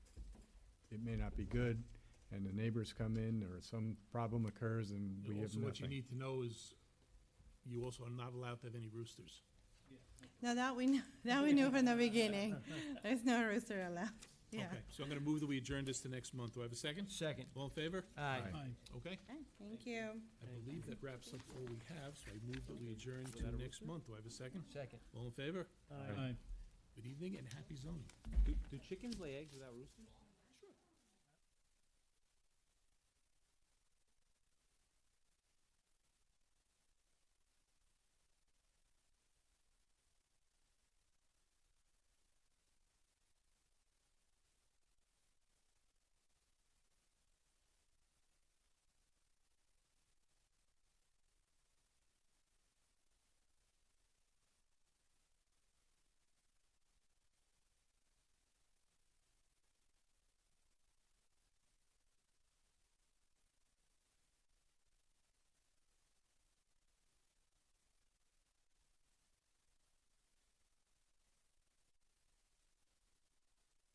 it may not be good, and the neighbors come in, or some problem occurs, and we have Also, what you nothing. need to know is you also are not allowed to have any roosters. Now that we, knew that we knew from the beginning, there's no rooster allowed, yeah. Okay, so I'm gonna move that we adjourn this to next month. Do I have a second? Second. All in favor? Aye. Okay, Okay, Thank you. I believe that wraps up all we have, so I move that we adjourn to next month. Do I have a second? Second. All in favor? Aye. Good evening and happy zoning. Do, do chickens lay eggs without roosters?